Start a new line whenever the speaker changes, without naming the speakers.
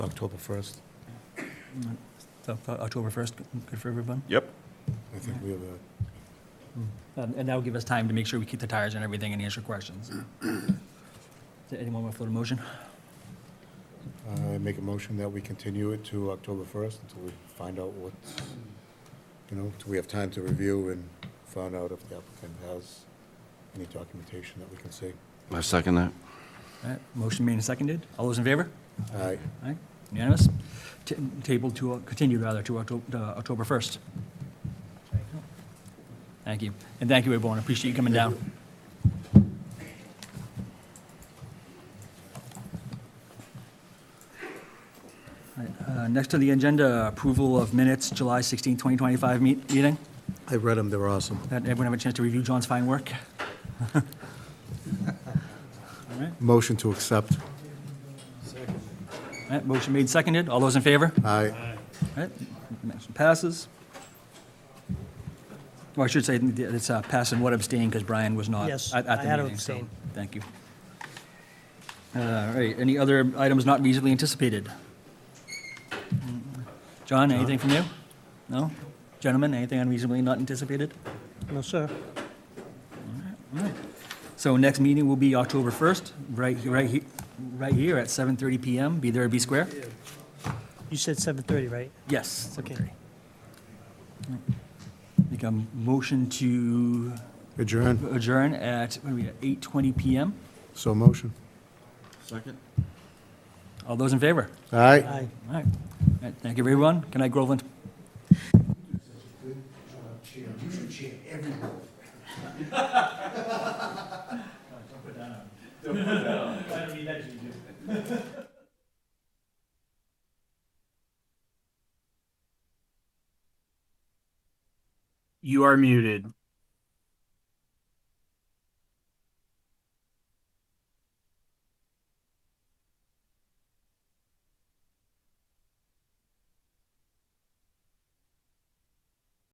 October 1st.
So, uh, October 1st, good for everyone?
Yep.
I think we have a,
And and that'll give us time to make sure we keep the tires and everything and answer questions. Does anyone want to float a motion?
I make a motion that we continue it to October 1st until we find out what, you know, till we have time to review and find out if the applicant has any documentation that we can see.
I second that.
All right, motion made and seconded. All those in favor?
Aye.
All right, unanimous? Ta- Table to, uh, continue rather, to Octo- to October 1st. Thank you. And thank you, everyone. Appreciate you coming down. All right, uh, Next on the agenda, approval of minutes, July 16, 2025 meet- meeting.
I read them, they're awesome.
That Everyone have a chance to review John's fine work? All right,
Motion to accept.
all right, motion made, seconded. All those in favor?
Aye.
All right, motion passes. Well, I should say, it's uh, pass and what abstain, because Brian was not.
Yes,
at- at the
I had to
meeting, so
abstain.
Thank you. All right, any other items not reasonably anticipated? John, anything from you? No? Gentlemen, anything unreasonably not anticipated?
No, sir.
All right. So next meeting will be October 1st, right, right, he- right here at 7:30 PM, be there, be square?
You said 7:30, right?
Yes.
Okay.
7:30. Make a motion to
Adjourn,
adjourn at, what are we, at 8:20 PM?
so motion.
Second?
All those in favor?
Aye.
Aye.
All right. All right, Thank you, everyone. Good night, Groveland.
You are muted.